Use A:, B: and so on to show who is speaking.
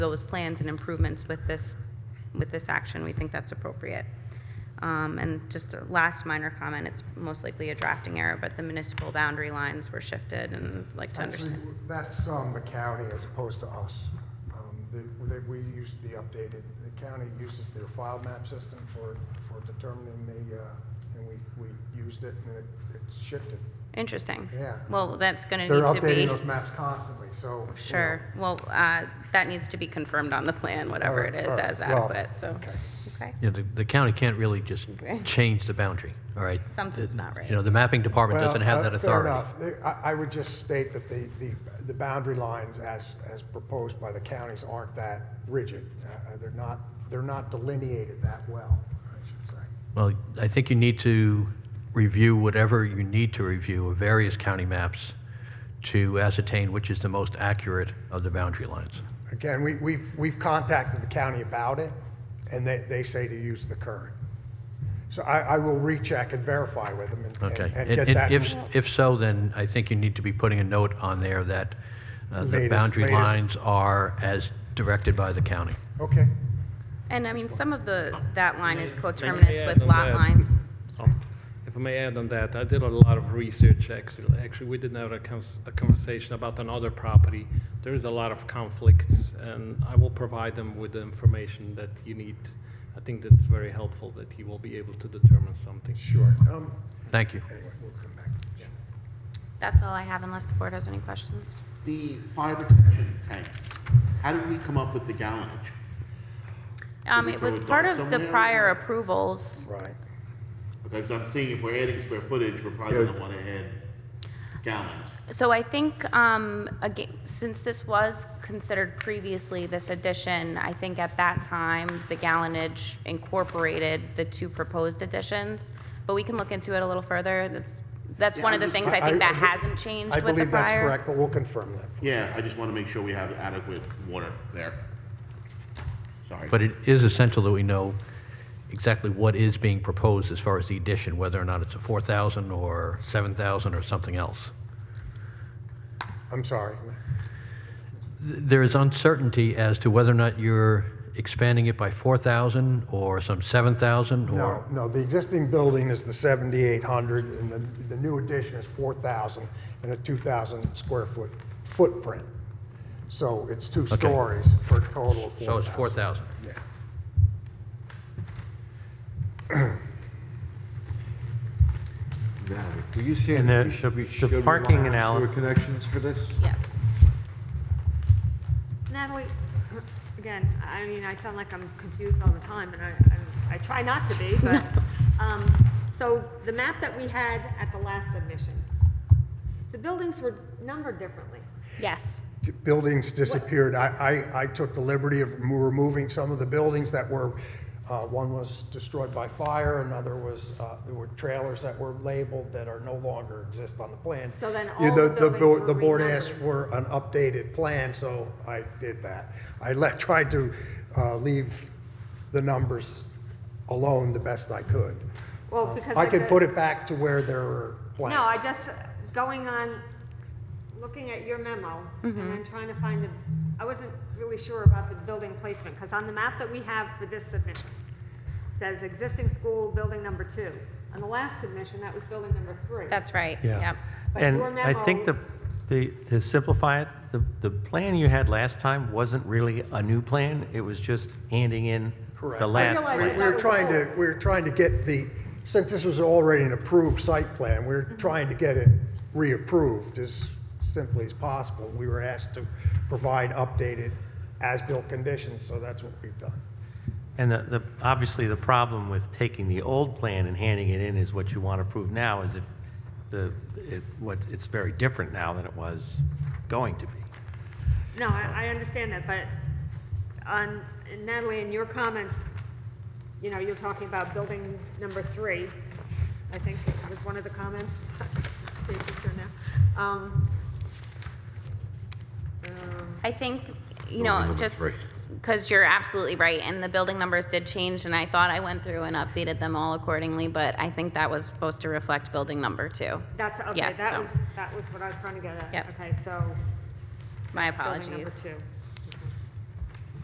A: those plans and improvements with this, with this action. We think that's appropriate. Um, And just a last minor comment, it's most likely a drafting error, but the municipal boundary lines were shifted and I'd like to
B: Actually,
A: understand.
B: that's um, the county as opposed to us. Um, that- That we use the updated, the county uses their file map system for, for determining the, uh, and we, we used it and it it shifted.
A: Interesting.
B: Yeah.
A: Well, that's going to
B: They're
A: need to be.
B: updating those maps constantly, so. you know.
A: Sure, well, uh, that needs to be confirmed on the plan, whatever it
B: Alright,
A: is
B: alright,
A: as
B: well,
A: adequate, so,
B: okay.
A: okay,
C: You know, the, the county can't really just
A: Okay.
C: change the boundary, all right?
A: Something's not right.
C: You know, the mapping department
B: Well,
C: doesn't have
B: uh,
C: that authority.
B: Fair enough. They- I, I would just state that the, the, the boundary lines as, as proposed by the counties aren't that rigid. Uh, They're not, they're not delineated that well, I should say.
C: Well, I think you need to review whatever you need to review of various county maps to ascertain which is the most accurate of the boundary lines.
B: Again, we, we've, we've contacted the county about it, and they, they say to use the current. So I, I will recheck and verify with them and-
C: Okay.
B: and, and
C: And-
B: get
C: and
B: that.
C: If, if so, then I think you need to be putting a note on there that uh, the
B: Latest-
C: boundary
B: latest.
C: lines are as directed by the county.
B: Okay,
A: And I mean, some of the, that line is
D: May
A: coterminous
D: I add
A: with
D: on
A: lot
D: that?
A: lines.
D: If I may add on that, I did a lot of research, actually, actually, we did have a cons- a conversation about another property. There is a lot of conflicts, and I will provide them with the information that you need. I think that's very helpful, that you will be able to determine something.
B: sure. Um,
C: Thank you.
B: Anyway, we'll come back.
A: That's all I have unless the board has any questions.
E: The fire protection tanks, how did we come up with the gallonage?
A: Um,
E: we
A: it was
E: throw a
A: part
E: dot
A: of the
E: somewhere?
A: prior approvals,
B: Right.
E: Because I'm seeing if we're adding square footage, we're probably gonna wanna add gallons.
A: So I think, um, again, since this was considered previously, this addition, I think at that time, the gallonage incorporated the two proposed additions, but we can look into it a little further. That's, that's one of the
E: Yeah, I'm
A: things
E: just-
A: I think that
B: I-
A: hasn't changed
B: I
A: with the
B: believe that's
A: prior.
B: correct, but we'll confirm that.
E: Yeah, I just wanna make sure we have adequate water there. Sorry.
C: But it is essential that we know exactly what is being proposed as far as the addition, whether or not it's a 4,000 or 7,000 or something else.
B: I'm sorry.
C: Th- There is uncertainty as to whether or not you're expanding it by 4,000 or some 7,000
B: No,
C: or...
B: no, the existing building is the 7,800, and the, the new addition is 4,000 and a 2,000 square foot footprint. So it's two
C: Okay.
B: stories for a total of 4,000.
C: So it's 4,000.
B: Yeah.
F: Valerie, were you saying
G: And
F: that
G: the-
F: we should, we
G: the
F: should rely
G: parking
F: on
G: analy-
F: sewer connections for this?
A: Yes.
H: Natalie, again, I mean, I sound like I'm confused all the time, and I, I'm- I try not to be, but, um, so the map that we had at the last submission, the buildings were numbered differently.
A: Yes.
B: t- buildings disappeared. I, I, I took the liberty of remo- removing some of the buildings that were, uh, one was destroyed by fire, another was, uh, there were trailers that were labeled that are no longer exist on the plan.
H: So then
B: You-
H: all the
B: board-
H: buildings
B: The
H: were
B: board asked for an updated plan, so I did that. I let, tried to, uh, leave the numbers alone the best I could. Uh,
H: Well, because
B: I
H: like
B: can
H: the-
B: put it back to where there were plans.
H: No, I just, going on, looking at your memo, and then trying to find the, I wasn't really sure about the building placement, because on the map that we have for this submission, it says existing school, building number two. On the last submission, that was building number three.
A: That's right.
G: Yeah.
A: Yep.
H: But
G: And
H: your
G: I think the,
H: memo-
G: the, to simplify it, the, the plan you had last time wasn't really a new plan. It was just handing in
B: Correct. I
G: the last
H: realize
B: We
G: plan.
B: we were trying to, we were trying to get the, since this was already an approved site plan, we were trying to get it reapproved as simply as possible. We were asked to provide updated as-built conditions, so that's what we've done.
G: And the, the, obviously, the problem with taking the old plan and handing it in is what you want to prove now is if the, it, what, it's very different now than it was going to be.
H: No, I, I understand that, but on, Natalie, in your comments, you know, you're talking about building number three, I think was one of the comments. Please, it's there now. Um,
A: I think, you know, just, because you're absolutely right, and the building numbers did change, and I thought I went through and updated them all accordingly, but I think that was supposed to reflect building number two.
H: That's, okay,
A: Yes,
H: that
A: so-
H: was, that was what I was trying to get at.
A: Yep.
H: Okay, so,
A: My
H: building number
A: apologies.
H: two.